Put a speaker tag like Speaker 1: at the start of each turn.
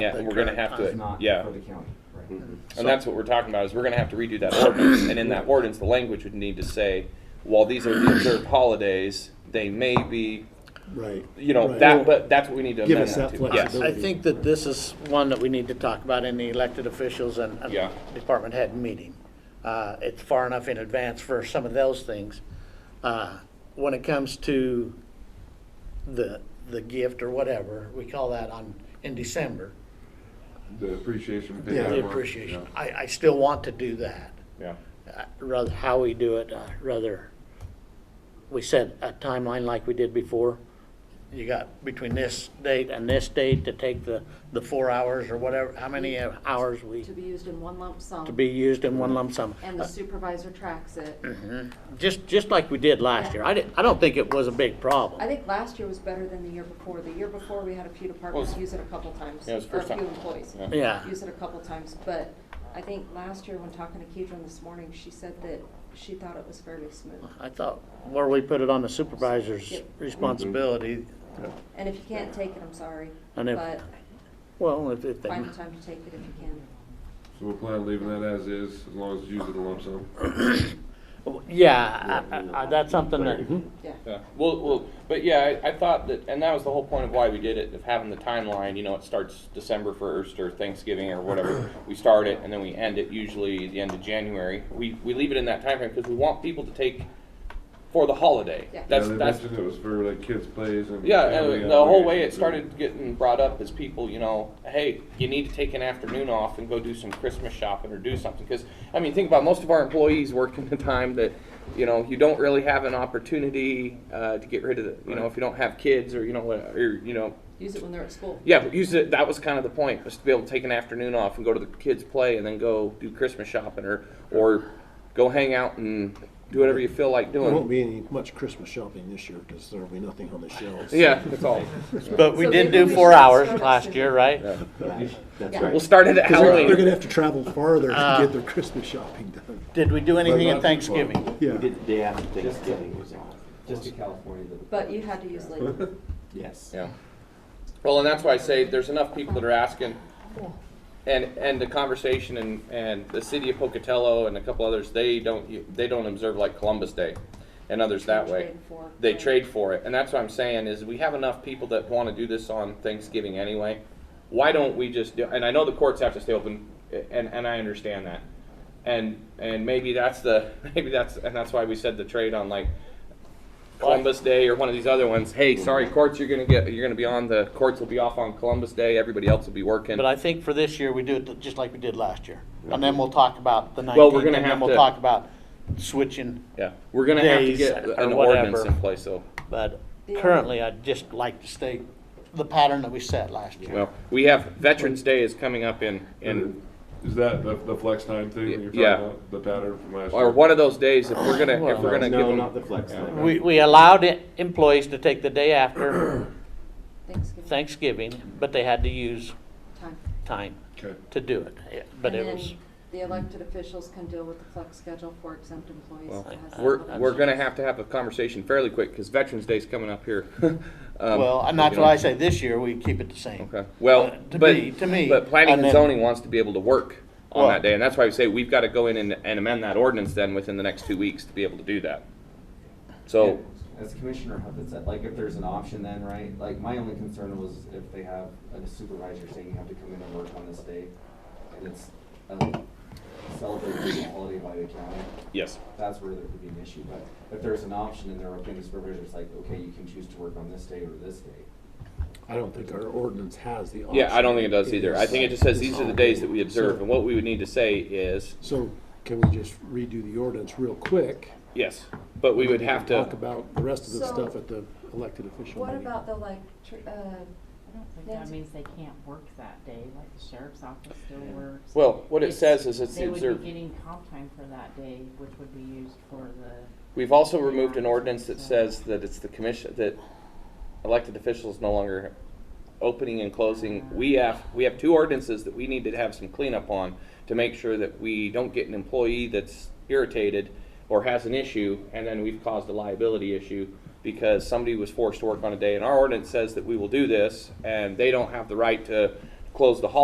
Speaker 1: Yeah,
Speaker 2: The
Speaker 1: we're gonna
Speaker 2: current
Speaker 1: have
Speaker 2: But,
Speaker 3: It's
Speaker 1: to,
Speaker 3: not
Speaker 1: yeah.
Speaker 3: for the county, right?
Speaker 1: And that's what we're talking about, is we're gonna have to redo that ordinance, and in that ordinance, the language would need to say, while these are the observed holidays, they may be,
Speaker 4: Right.
Speaker 1: you know,
Speaker 4: Right.
Speaker 1: that, but that's what we need to
Speaker 4: Give
Speaker 1: amend
Speaker 4: us
Speaker 1: that
Speaker 4: that
Speaker 1: to.
Speaker 2: I-
Speaker 1: Yes.
Speaker 2: I
Speaker 4: flexibility.
Speaker 2: think that this is one that we need to talk about in the elected officials and and
Speaker 1: Yeah.
Speaker 2: department head meeting. Uh, It's far enough in advance for some of those things. Uh, When it comes to the, the gift or whatever, we call that on, in December,
Speaker 5: The appreciation.
Speaker 4: Yeah.
Speaker 2: the appreciation. I, I still want to do that.
Speaker 1: Yeah.
Speaker 2: Uh, Rather, how we do it, uh, rather, we set a timeline like we did before. You got between this date and this date to take the, the four hours or whatever, how many
Speaker 6: Mm-hmm.
Speaker 2: hours we,
Speaker 6: to be used in one lump sum.
Speaker 2: to be used in one lump sum. Uh,
Speaker 6: And the supervisor tracks it.
Speaker 2: Just, just like we did last year. I didn't, I don't think it was a big
Speaker 6: I
Speaker 2: problem.
Speaker 6: think last year was better than the year before. The year before, we had a few departments use it a couple times.
Speaker 1: Yeah, it was
Speaker 6: or
Speaker 1: first time.
Speaker 6: a few employees
Speaker 1: Yeah.
Speaker 2: Yeah.
Speaker 6: use it a couple times. But I think last year, when talking to Kedron this morning, she said that she thought it was fairly smooth.
Speaker 2: I thought where we put it on the supervisor's
Speaker 6: Yep.
Speaker 2: responsibility,
Speaker 6: And if you can't take it, I'm sorry,
Speaker 2: And if-
Speaker 6: but
Speaker 2: well, if, if they.
Speaker 6: find the time to take it if you can.
Speaker 5: So we'll plan on leaving that as is, as long as you use it in lump sum.
Speaker 2: Yeah, I- I- I- that's something that,
Speaker 6: Yeah.
Speaker 1: Yeah, well, well, but yeah, I, I thought that, and that was the whole point of why we did it, of having the timeline, you know, it starts December first or Thanksgiving or whatever. We start it and then we end it usually the end of January. We, we leave it in that timeframe because we want people to take for the holiday.
Speaker 6: Yeah.
Speaker 1: That's,
Speaker 5: Yeah, they
Speaker 1: that's,
Speaker 5: mentioned It was for like kids plays and.
Speaker 1: yeah,
Speaker 5: family
Speaker 1: and the whole way it
Speaker 5: obligations.
Speaker 1: started getting brought up is people, you know, hey, you need to take an afternoon off and go do some Christmas shopping or do something. Because, I mean, think about most of our employees work in the time that, you know, you don't really have an opportunity uh, to get rid of the, you know, if you don't have kids or, you know, what- or, you know,
Speaker 6: Use it when they're at school.
Speaker 1: yeah, but use it. That was kind of the point was to be able to take an afternoon off and go to the kids' play and then go do Christmas shopping or, or go hang out and do whatever you feel like
Speaker 4: There won't
Speaker 1: doing.
Speaker 4: be any much Christmas shopping this year because there'll be nothing on the shelves.
Speaker 1: Yeah, that's all.
Speaker 2: but we
Speaker 6: So
Speaker 2: did
Speaker 6: maybe
Speaker 2: do
Speaker 6: we
Speaker 2: four
Speaker 6: should
Speaker 2: hours
Speaker 6: start at
Speaker 2: last
Speaker 6: six.
Speaker 2: year, right?
Speaker 4: That's
Speaker 6: Yeah.
Speaker 4: right.
Speaker 1: We'll start it at
Speaker 4: They're
Speaker 1: Halloween. Uh.
Speaker 4: going to have to travel farther to get their Christmas shopping done.
Speaker 2: Did we do anything
Speaker 5: But
Speaker 2: at
Speaker 5: not-
Speaker 2: Thanksgiving?
Speaker 4: Yeah.
Speaker 3: The day after Thanksgiving was out.
Speaker 7: Just to California, the-
Speaker 6: But you had to use leave.
Speaker 3: Yes.
Speaker 1: Yeah. Well, and that's why I say there's enough people that are asking, and and the conversation and and the city of Pocatello and a couple others, they don't they don't observe like Columbus Day, and others that way.
Speaker 6: Trade for-
Speaker 1: They trade for it, and that's what I'm saying is we have enough people that want to do this on Thanksgiving anyway. Why don't we just do? And I know the courts have to stay open, and and I understand that, and and maybe that's the maybe that's and that's why we said the trade on like Columbus Day or one of these other ones. Hey, sorry, courts, you're gonna get, you're gonna be on the courts will be off on Columbus Day. Everybody else will be working.
Speaker 2: But I think for this year, we do it just like we did last year. And then we'll talk about the
Speaker 1: Well, we're
Speaker 2: nineteenth,
Speaker 1: gonna
Speaker 2: and then
Speaker 1: have
Speaker 2: we'll
Speaker 1: to-
Speaker 2: talk about switching.
Speaker 1: yeah, we're gonna have to
Speaker 2: Days
Speaker 1: get
Speaker 2: or
Speaker 1: an
Speaker 2: whatever.
Speaker 1: ordinance in place. So,
Speaker 2: But
Speaker 6: Yeah.
Speaker 2: currently, I'd just like to stay the pattern that we set last year.
Speaker 1: well, we have Veterans Day is coming up in in
Speaker 5: Is that the, the flex time thing that you're talking
Speaker 1: Yeah.
Speaker 5: about? The pattern from last year?
Speaker 1: or one of those days if we're gonna if we're gonna give
Speaker 3: No,
Speaker 1: them.
Speaker 3: not the flex time.
Speaker 2: We, we allowed it- employees to take the day after
Speaker 6: Thanksgiving
Speaker 2: Thanksgiving, but they had to use
Speaker 6: time.
Speaker 2: time
Speaker 5: Okay.
Speaker 2: to do it. Yeah, But
Speaker 6: And
Speaker 2: it
Speaker 6: then
Speaker 2: was,
Speaker 6: The elected officials can deal with the flex schedule for exempt employees.
Speaker 1: Well,
Speaker 6: that has to
Speaker 1: We're,
Speaker 6: happen.
Speaker 1: we're gonna have to have a conversation fairly quick because Veterans Day's coming up here. Um,
Speaker 2: well, and that's
Speaker 1: you know.
Speaker 2: why I say this year, we keep it the same.
Speaker 1: Okay, well,
Speaker 2: Uh, to me-
Speaker 1: but,
Speaker 2: to me,
Speaker 1: but planning and
Speaker 2: and then-
Speaker 1: zoning wants to be able to work on
Speaker 2: Well-
Speaker 1: that day, and that's why we say we've gotta go in and, and amend that ordinance then within the next two weeks to be able to do that. So,
Speaker 7: as Commissioner Huffett said, like if there's an option then, right? Like my only concern was if they have a supervisor saying you have to come in and work on this day and it's a celebrated holiday by the county,
Speaker 1: yes,
Speaker 7: that's where there could be an issue. But if there's an option and they're okay, the supervisor's like, okay, you can choose to work on this day or this day.
Speaker 4: I don't think our ordinance has the option.
Speaker 1: yeah, I don't think it does either, I think it just says these are the days that we observe, and what we would need to say is,
Speaker 4: So can we just redo the ordinance real quick?
Speaker 1: yes, but we would have
Speaker 4: Talk
Speaker 1: to,
Speaker 4: about the rest of the
Speaker 6: So-
Speaker 4: stuff at the elected official
Speaker 6: What
Speaker 4: meeting.
Speaker 6: about the like, tr- uh,
Speaker 8: I don't think that
Speaker 6: Nancy?
Speaker 8: means they can't work that day, like the sheriff's office still works.
Speaker 1: well, what it
Speaker 8: It's-
Speaker 1: says is it's the
Speaker 8: They would
Speaker 1: observed.
Speaker 8: be getting comp time for that day, which would be used for the
Speaker 1: We've also removed an ordinance that says that it's the commission, that elected officials no longer opening and closing. We have, we have two ordinances that we need to have some cleanup on to make sure that we don't get an employee that's irritated or has an issue, and then we've caused a liability issue because somebody was forced to work on a day, and our ordinance says that we will do this, and they don't have the right to close the hall.